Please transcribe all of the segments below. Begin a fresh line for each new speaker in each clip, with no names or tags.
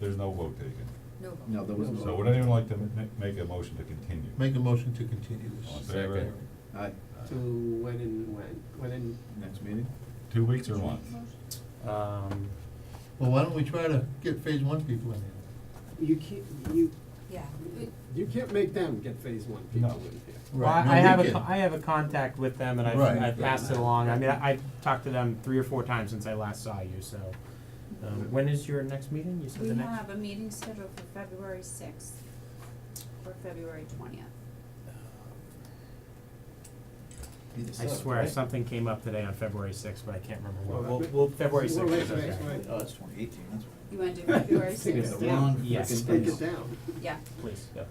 There's no vote taken.
No.
No, there wasn't.
So would anyone like to ma- make a motion to continue?
Make a motion to continue
All in
this.
favor?
Aye,
To when and when, when and,
next meeting?
Two weeks or a month?
Um,
Well, why don't we try to get phase one people in here?
you can't, you,
Yeah, we-
you can't make them get phase one
No.
people in here.
well,
Right, no,
I I
we
have a,
can.
co- I have a contact with them and I've,
Right.
I've passed it along, I mean, I, I've talked to them three or four times since I last saw you, so. Um, when is your next meeting? You said
we
the next?
have a meeting scheduled for February sixth or February twentieth.
I swear, something came up today on February sixth, but I can't remember what.
Well,
We'll,
but-
we'll, February
Well,
sixth
wait,
is
wait,
okay.
wait.
Oh, it's twenty eighteen, that's
You
right.
wanna do February
Take it
sixth?
down.
Wrong
Yes.
frickin'
Take
place.
it down,
Yeah,
Please, yeah,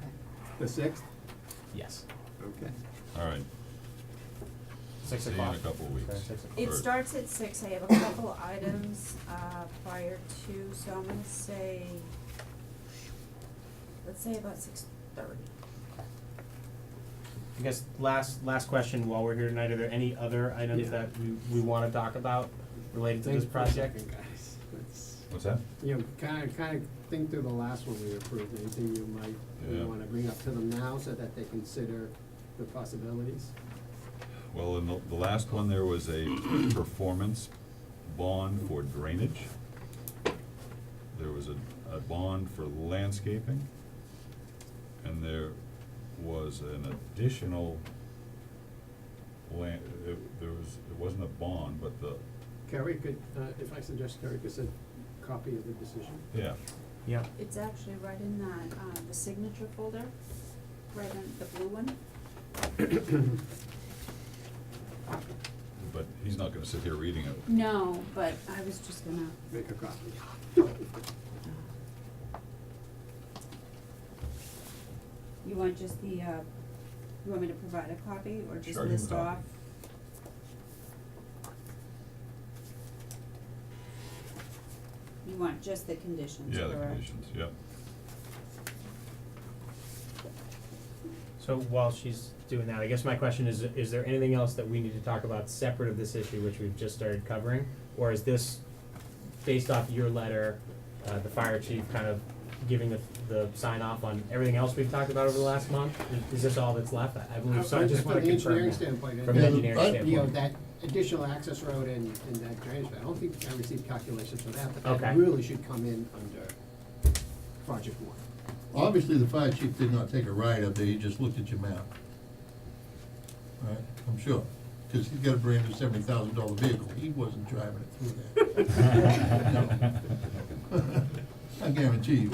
the sixth,
yes,
okay.
All right,
six
See you in
o'clock.
a couple of weeks.
Sorry, six o'clock.
it
Or-
starts at six, I have a couple items, uh, prior to, so I'm gonna say, let's say about six thirty.
I guess last, last question while we're here tonight, are there any other items
Yeah.
that we, we wanna talk about related to
Thanks
this
for
project?
thinking, Guys, It's-
What's that?
you know, kinda, kinda think through the last one we approved, anything you might,
Yeah.
you wanna bring up to them now so that they consider the possibilities.
Well, in the, the last one, there was a performance bond for drainage. There was a, a bond for landscaping. And there was an additional land, it, there was, it wasn't a bond, but the,
Kerry could, uh, if I suggest Kerry could send a copy of the decision.
yeah,
Yep,
It's actually right in that, uh, the signature folder, right in the blue one.
but he's not gonna sit here reading it.
No, but I was just gonna,
Make a copy.
you want just the, uh, you want me to provide a copy or just
Sure, you can
list
copy.
off? You want just the conditions,
Yeah, the
correct?
conditions, yep.
so while she's doing that, I guess my question is, is there anything else that we need to talk about separate of this issue, which we've just started covering? Or is this, based off your letter, uh, the fire chief kind of giving the, the sign off on everything else we've talked about over the last month? Is- Is this all that's left? I- I believe so, I just wanna
From the
confirm
engineering
that.
standpoint, and-
From an
Yeah,
engineering
but-
standpoint.
you know, that additional access road and, and that drainage, I don't think I received calculations for that, but
Okay.
that really should come in under project one.
Obviously, the fire chief did not take a ride up there, he just looked at your map. All right, I'm sure, because he's got a brand new seventy thousand dollar vehicle, he wasn't driving it through there. No. I guarantee you.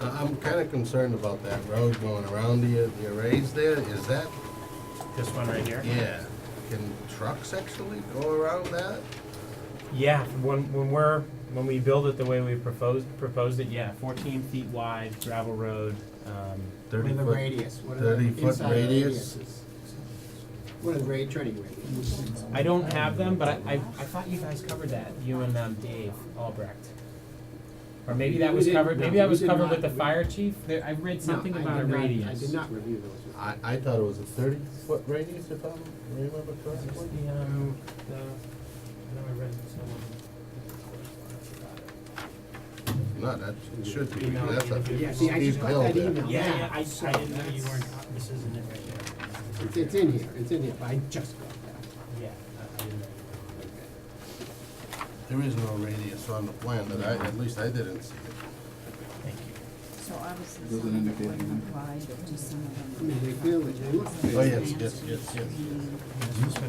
I- I'm kind of concerned about that road going around the, the arrays there, is that,
This one right here?
yeah, can trucks actually go around that?
Yeah, when, when we're, when we build it the way we proposed, proposed it, yeah, fourteen feet wide gravel road, um,
What are the
30 -foot-
radius, what are the
30 -foot
inside
radius?
radiuses? What are the rate, turning radiuses?
I don't have them, but I, I, I thought you guys covered that, you and, um, Dave Albrecht. Or maybe that
We
was
did-
covered,
no,
maybe that
we
was
did
covered
not.
with the
We-
fire chief, there, I read something
No, I
about a
did not-
radius.
I did not review those.
I, I thought it was a thirty foot radius if I remember correctly.
The, um, the, I know I read someone.
No, that should be,
Email
that's a
me.
Yeah, see, I
steep
just
hill
got that
there.
email
Yeah,
now,
yeah, I,
so
I didn't know you
that's-
weren't, this isn't it right
It's,
there.
it's in here, it's in here, but I just got that.
Yeah, I, I didn't know. you weren't.
There is no radius on the plan that I, at least I didn't see it.
Thank you.
So obviously
Those are
some of them
indicated
wouldn't
in-
apply, but just some of
I
them.
mean, they feel it, they look good.
Oh, yes, yes, yes, yes,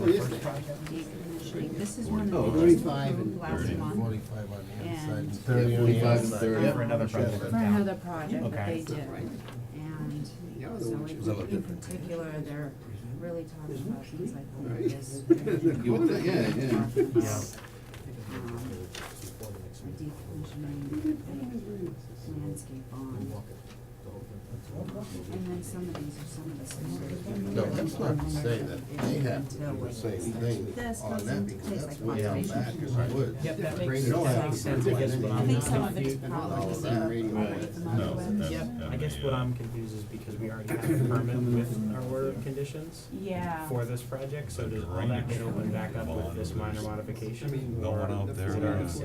Oh, yes, they-
Decommissioning, this is one
Oh,
of the things we
35 and
approved last
Thirty.
month
Forty-five on the
And-
inside and
Yeah,
thirty on the
45 and
outside.
30.
Yeah,
For
another
sure.
project.
for another project that
Okay.
they did. And
Yeah, the
so
one
it-
she was
a little
in
different.
particular, they're really talking about things like
Right.
this.
You would think, yeah, yeah.
Before the next meeting.
um, Decommissioning, landscape bond. And then some of these are some of the smaller things.
No, that's not to say that they have to
Until
do the
we-
same thing
This
on that,
doesn't
because
taste
that's
like
way out
conservation.
back as I would.
Yep, that
Bring
makes,
it all
that
out.
makes sense, I guess what
I
I'm
think some of it's
confused-
probably
All that.
already
Right.
No,
modified.
that's,
Yep,
that
I guess
may,
what
uh,
I'm confused is because we already have a permit with our order of conditions
Yeah.
for this project, so does all that get opened back up with this minor modification?
I mean,
No one out there,
the-
uh,